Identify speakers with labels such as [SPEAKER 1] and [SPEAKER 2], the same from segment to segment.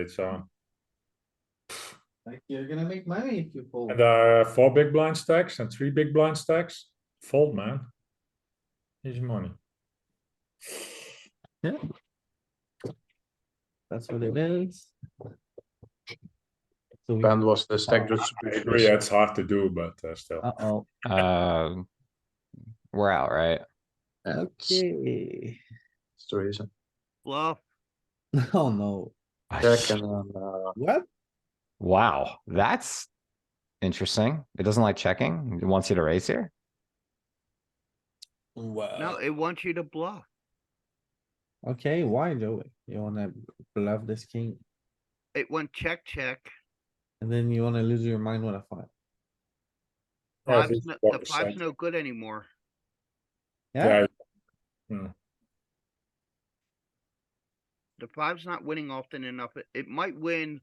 [SPEAKER 1] It's uh, on.
[SPEAKER 2] Like, you're gonna make money if you fold.
[SPEAKER 1] And there are four big blind stacks and three big blind stacks. Fold, man. Easy money.
[SPEAKER 3] That's what it is. So we,
[SPEAKER 4] Ben was the stack
[SPEAKER 1] Ah, I
[SPEAKER 4] distribution.
[SPEAKER 1] agree, it's hard to do, but uh, still.
[SPEAKER 3] uh-oh,
[SPEAKER 5] Uh, we're out, right?
[SPEAKER 4] That's
[SPEAKER 3] okay.
[SPEAKER 4] that's the reason.
[SPEAKER 6] Bluff.
[SPEAKER 3] Oh no,
[SPEAKER 4] Check and then, uh,
[SPEAKER 2] What?
[SPEAKER 5] Wow, that's interesting. It doesn't like checking. It wants you to raise here.
[SPEAKER 6] No,
[SPEAKER 3] Uh,
[SPEAKER 2] Wow.
[SPEAKER 6] it wants you to bluff.
[SPEAKER 3] okay, why Joey? You wanna bluff this king
[SPEAKER 6] It went check, check.
[SPEAKER 3] and then you wanna lose your mind with a five?
[SPEAKER 1] Yeah, I
[SPEAKER 6] Five's
[SPEAKER 1] think
[SPEAKER 6] no-
[SPEAKER 1] four
[SPEAKER 6] The five's
[SPEAKER 1] percent.
[SPEAKER 6] no good anymore.
[SPEAKER 3] Yeah,
[SPEAKER 1] Yeah,
[SPEAKER 6] The five's not winning often enough. It- It might win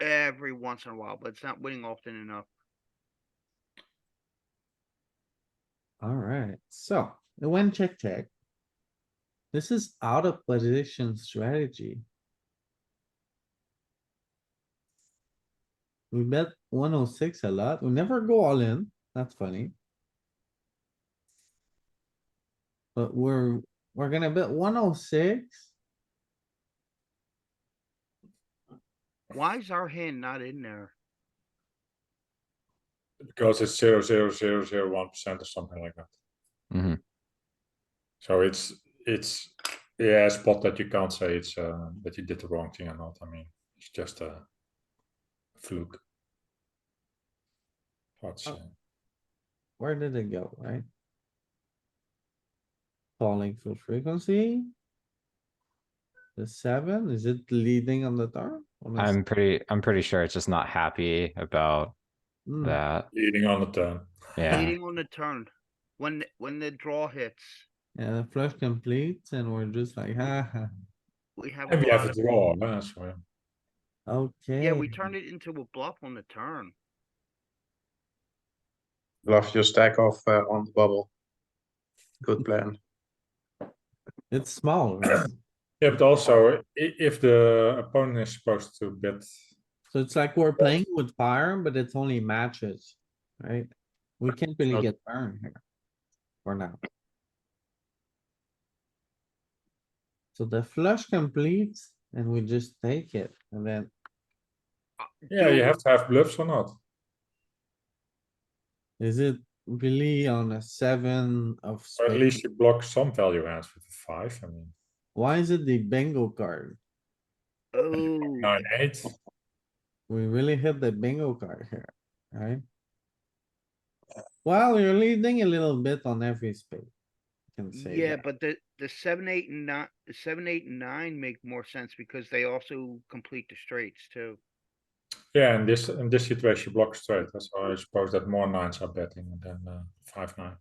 [SPEAKER 6] every once in a while, but it's not winning often enough.
[SPEAKER 3] alright, so it went check, check. This is out of position strategy. We bet one oh six a lot. We never go all in. That's funny. But we're, we're gonna bet one oh six.
[SPEAKER 6] Why is our hand not in there?
[SPEAKER 1] because it's zero, zero, zero, zero, one percent or something like that.
[SPEAKER 3] Mm-hmm.
[SPEAKER 5] Mhm.
[SPEAKER 1] So it's, it's, yeah, a spot that you can't say it's, uh, that you did the wrong thing or not. I mean, it's just a fluke. uh, Hard to
[SPEAKER 3] Oh.
[SPEAKER 1] say.
[SPEAKER 3] Where did it go, right? Falling for frequency. The seven, is it leading on the turn? On the s-
[SPEAKER 5] I'm pretty, I'm pretty sure it's just not happy about
[SPEAKER 3] Hmm,
[SPEAKER 5] that.
[SPEAKER 1] Leading on the turn.
[SPEAKER 5] Yeah,
[SPEAKER 6] Leading on the turn. When, the- when the draw hits,
[SPEAKER 3] Yeah, the flush completes and we're just like, ha ha,
[SPEAKER 6] we have. a
[SPEAKER 1] And we
[SPEAKER 6] lot
[SPEAKER 1] have a
[SPEAKER 6] of-
[SPEAKER 1] draw, uh, so. yeah.
[SPEAKER 3] okay.
[SPEAKER 6] Yeah, we turn it into a bluff on the turn.
[SPEAKER 4] bluff your stack off uh, on the bubble. Good plan.
[SPEAKER 3] It's small, right?
[SPEAKER 1] Yeah, but also i- if the opponent is supposed to bet,
[SPEAKER 3] So it's like we're playing with fire, but it's only matches, right? We can't really
[SPEAKER 4] Okay.
[SPEAKER 3] get burned here. For now. So the flush completes and we just take it and then
[SPEAKER 1] yeah, you
[SPEAKER 6] Dude.
[SPEAKER 1] have to have bluffs or not.
[SPEAKER 3] Is it really on a seven of
[SPEAKER 1] Or at
[SPEAKER 3] spades?
[SPEAKER 1] least you block some value hands with a five. I mean,
[SPEAKER 3] Why is it the bingo card?
[SPEAKER 6] Oh,
[SPEAKER 1] nine, eight.
[SPEAKER 3] We really hit the bingo card here, right? Well, you're leading a little bit on every spade. I Can say
[SPEAKER 6] yeah,
[SPEAKER 3] that.
[SPEAKER 6] but the, the seven, eight and nine, the seven, eight and nine make more sense because they also complete the straights too.
[SPEAKER 1] Yeah, in this in this situation, you block straight. huh? So I suppose that more nines are betting than uh, five nine.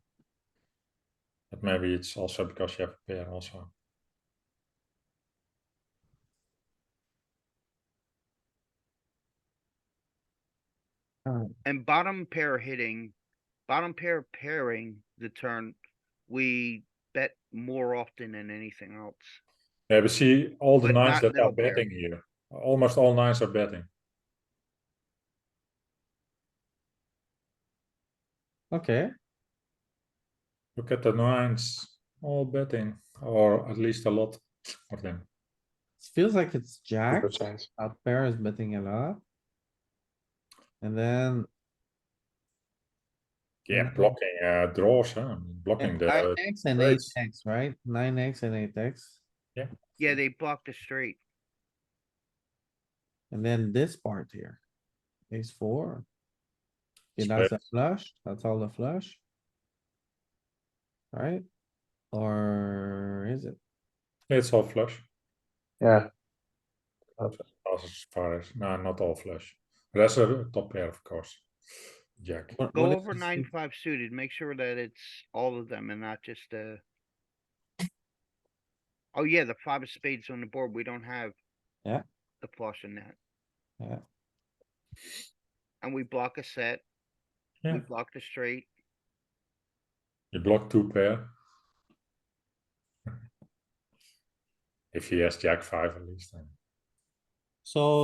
[SPEAKER 1] But maybe it's also because you have a pair also.
[SPEAKER 6] And bottom pair hitting, bottom pair pairing the turn, we bet more often than anything else.
[SPEAKER 1] Yeah, but see all the
[SPEAKER 6] But
[SPEAKER 1] nines
[SPEAKER 6] not
[SPEAKER 1] that are
[SPEAKER 6] middle pair.
[SPEAKER 1] betting here. Almost all nines are betting.
[SPEAKER 3] Okay,
[SPEAKER 1] Look at the nines, all betting, or at least a lot of them.
[SPEAKER 3] it feels like it's jack.
[SPEAKER 4] Good sense.
[SPEAKER 3] Out pair is betting a lot. And then
[SPEAKER 1] Yeah,
[SPEAKER 3] Mhm.
[SPEAKER 1] blocking uh, draws, huh? I mean, blocking
[SPEAKER 3] nine
[SPEAKER 1] the.
[SPEAKER 3] X and eight
[SPEAKER 1] straights.
[SPEAKER 3] X, right? Nine X and eight X.
[SPEAKER 6] Yeah, they block the straight.
[SPEAKER 3] And then this part here. Ace four. Okay, that's a flush, that's all the flush. Right? Or is it?
[SPEAKER 1] It's all flush.
[SPEAKER 4] Yeah,
[SPEAKER 1] As far as no, nou, not all flush. That's a top pair, of course. Jack.
[SPEAKER 3] What-
[SPEAKER 6] Go
[SPEAKER 3] what is
[SPEAKER 6] over
[SPEAKER 3] this
[SPEAKER 6] nine,
[SPEAKER 3] thing?
[SPEAKER 6] five suited, make sure that it's all of them and not just uh Oh yeah, the five of spades on the board, we don't have.
[SPEAKER 3] Yeah.
[SPEAKER 6] The flush in that.
[SPEAKER 3] Yeah.
[SPEAKER 6] And we block a set.
[SPEAKER 1] Yeah.
[SPEAKER 6] We block the straight.
[SPEAKER 1] You block two pair. If he has Jack five at least, then
[SPEAKER 3] So